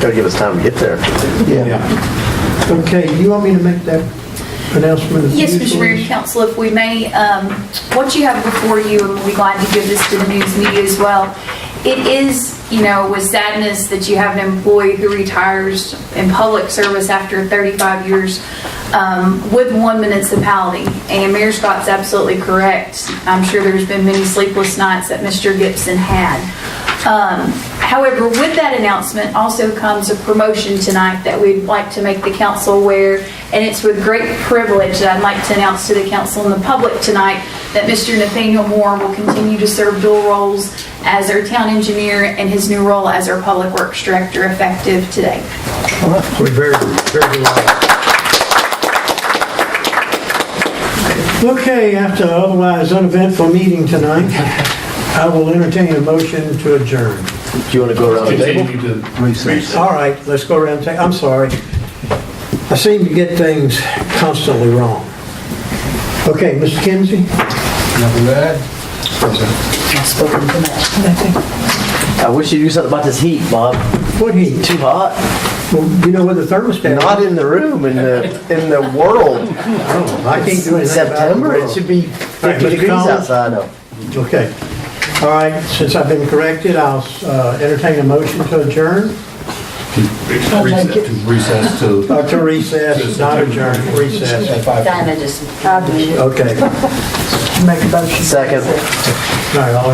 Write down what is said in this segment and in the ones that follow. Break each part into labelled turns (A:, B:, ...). A: Gotta give us time to get there.
B: Yeah. Okay, you want me to make that announcement?
C: Yes, Mr. Mayor and Council, if we may, um, what you have before you, and we'd like to give this to the news media as well, it is, you know, with sadness that you have an employee who retires in public service after 35 years um, with one municipality. And Mayor Scott's absolutely correct. I'm sure there's been many sleepless nights that Mr. Gibson had. Um, However, with that announcement also comes a promotion tonight that we'd like to make the council aware, and it's with great privilege that I'd like to announce to the council and the public tonight that Mr. Nathaniel Moore will continue to serve dual roles as our town engineer and his new role as our public works director effective today.
B: We're very, very delighted. Okay, after otherwise uneventful meeting tonight, I will entertain a motion to adjourn.
A: Do you wanna go around the table?
D: Continue to recess.
B: All right, let's go around, ta- I'm sorry. I seem to get things constantly wrong. Okay, Mr. Kinsey?
D: Nothing bad.
A: I wish you'd do something about this heat, Bob.
B: What heat?
A: Too hot?
B: Well, You know where the thermostat
A: Not
B: is?
A: in the room, in the, in the world.
B: I can't do anything about it.
A: In September, it should be
B: Right,
A: 50
B: Mr.
A: degrees
B: Collins?
A: outside now.
B: Okay. All right, since I've been corrected, I'll uh, entertain a motion to adjourn,
D: Recess to recess to.
B: uh, to recess, not adjourn, recess.
D: At five.
E: Diana just.
B: Okay, all
E: Make a motion.
A: Second.
B: right, all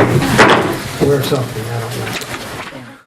B: in favor? We're something.